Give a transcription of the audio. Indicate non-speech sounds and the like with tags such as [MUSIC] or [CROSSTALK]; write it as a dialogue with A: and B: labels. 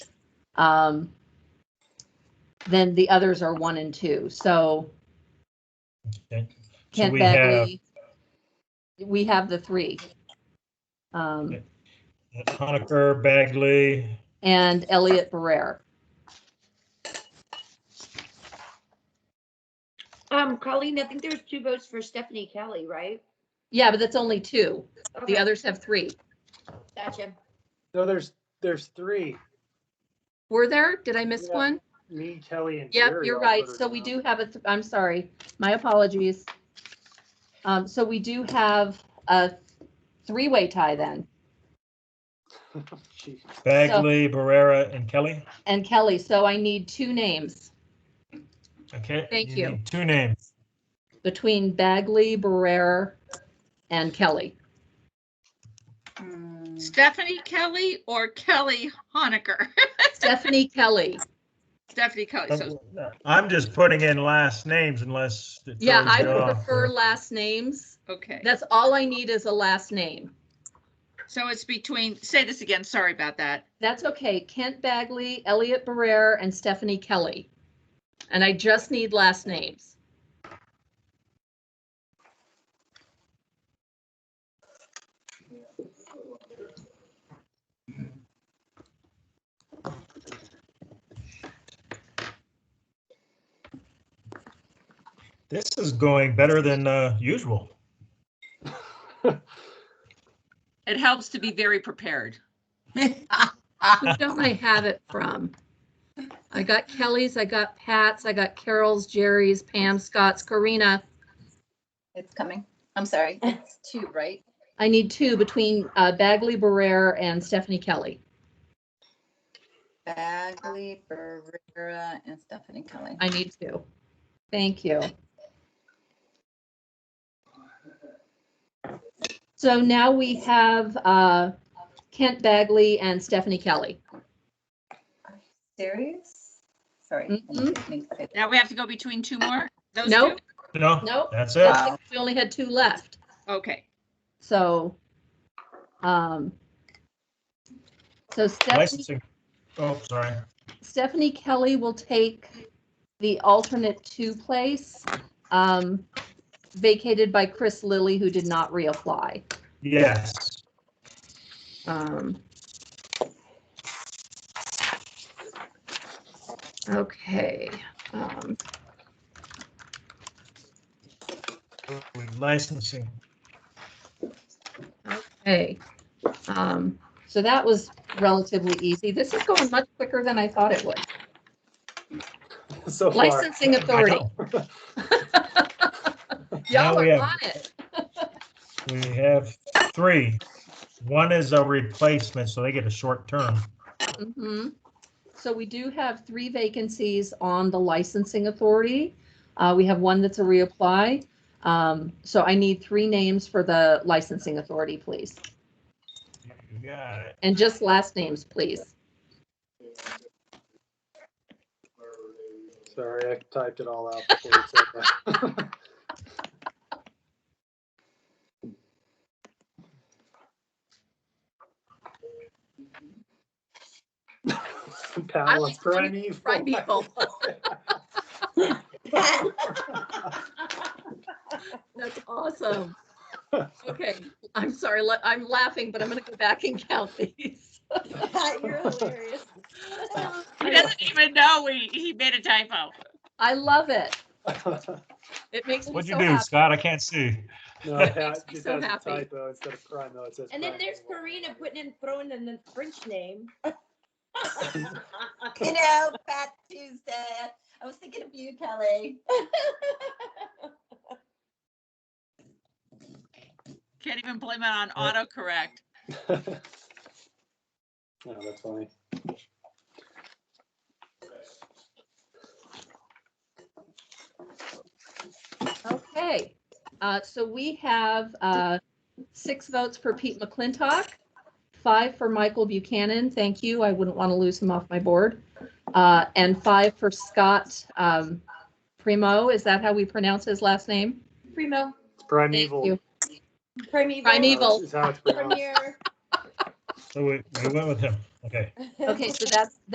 A: Um, then the others are one and two. So
B: Okay. So
A: can't
B: we
A: that
B: have
A: be? We have the three. Um,
B: Okay. Honaker, Bagley,
A: and Elliot Barrera.
C: Um, Colleen, I think there's two votes for Stephanie Kelly, right?
A: Yeah, but that's only two.
C: Okay,
A: The others have three.
C: Gotcha.
D: No, there's, there's three,
A: Were there? Did I miss
D: Yeah.
A: one?
D: me, Kelly, and
A: Yep,
D: Jerry.
A: you're
D: all
A: right.
D: voted
A: So we
D: no.
A: do have a, th- I'm sorry, my apologies. Um, so we do have a three-way tie then.
D: [LAUGHS] Jeez.
B: Bagley, Barrera, and Kelly.
A: And Kelly, so I need two names
B: Okay.
A: Thank you.
B: need Two names.
A: between Bagley, Barrera, and Kelly.
E: Hmm. Stephanie Kelly or Kelly Honaker?
A: Stephanie Kelly.
E: [LAUGHS] Stephanie Kelly, so
B: I'm just putting in last names unless. it
A: Yeah,
B: throws
A: I
B: you
A: would
B: off.
A: prefer last names.
E: Okay,
A: That's all I need is a last name.
E: so it's between, say this again, sorry about that.
A: That's okay. Kent Bagley, Elliot Barrera, and Stephanie Kelly. And I just need last names.
B: This is going better than uh, usual.
E: It helps to be very prepared.
A: Who don't I have it from? I got Kelly's, I got Pat's, I got Carol's, Jerry's, Pam, Scott's, Karina.
F: It's coming. I'm sorry. It's two, right?
A: I need two between uh, Bagley Barrera and Stephanie Kelly.
F: Bagley, Barrera, and Stephanie Kelly.
A: I need two. Thank you. So now we have uh, Kent Bagley and Stephanie Kelly.
F: Serious? Sorry. I didn't mean to say that.
E: Now we have to go between two more? Those
A: Nope.
E: two?
B: No,
A: Nope.
B: that's it.
F: Wow.
A: We only had two left.
E: Okay,
A: So, um, so Stephanie,
B: Licensing. Oh, sorry.
A: Stephanie Kelly will take the alternate two place, um, vacated by Chris Lilly, who did not reapply.
B: Yes.
A: Um, okay, um,
B: Licensing.
A: okay. Um, so that was relatively easy. This is going much quicker than I thought it would.
D: So far.
A: Licensing
B: I
A: authority.
B: know. Now
A: Y'all
B: we
A: are
B: have-
A: on it.
B: We have three. One is a replacement, so they get a short term.
A: Mhm. So we do have three vacancies on the licensing authority. Uh, we have one that's a reapply. Um, so I need three names for the licensing authority, please.
B: You got it.
A: And just last names, please.
D: Sorry, I typed it all out before you said that. [LAUGHS] Pamela,
A: like
D: prime
A: finding
D: evil.
A: Right,
D: [LAUGHS]
A: [LAUGHS] people. That's
B: [LAUGHS]
A: awesome. Okay, I'm sorry, let- I'm laughing, but I'm gonna go back and count [LAUGHS]
B: [LAUGHS]
A: these.
D: [LAUGHS]
F: You're hilarious.
E: he doesn't even know we, he made a typo.
A: I love it. It makes me
B: What'd
A: so
B: you do,
A: happy.
B: Scott? I can't see.
A: [LAUGHS]
D: No,
B: Makes
D: yeah,
A: me
D: it
A: so
D: has a
A: happy.
D: typo instead of prime, though, it says.
C: And then
D: prime
C: there's
D: evil.
C: Karina putting in, throwing in the French name.
F: You know, Fat Tuesday. I was thinking of you, Kelly.
E: Can't even blame it on autocorrect.
D: [LAUGHS] Oh, that's funny.
A: Okay, uh, so we have, uh, six votes for Pete McClintock, five for Michael Buchanan, thank you, I wouldn't want to lose him off my board, uh, and five for Scott, um, Primo, is that how we pronounce his last name?
C: Primo,
D: It's prime
A: Thank
D: evil.
A: you.
C: primeval.
A: Primeval.
D: Is how it's pronounced.
C: Premier.
B: So we, we went with him. Okay.
A: Okay, so that's,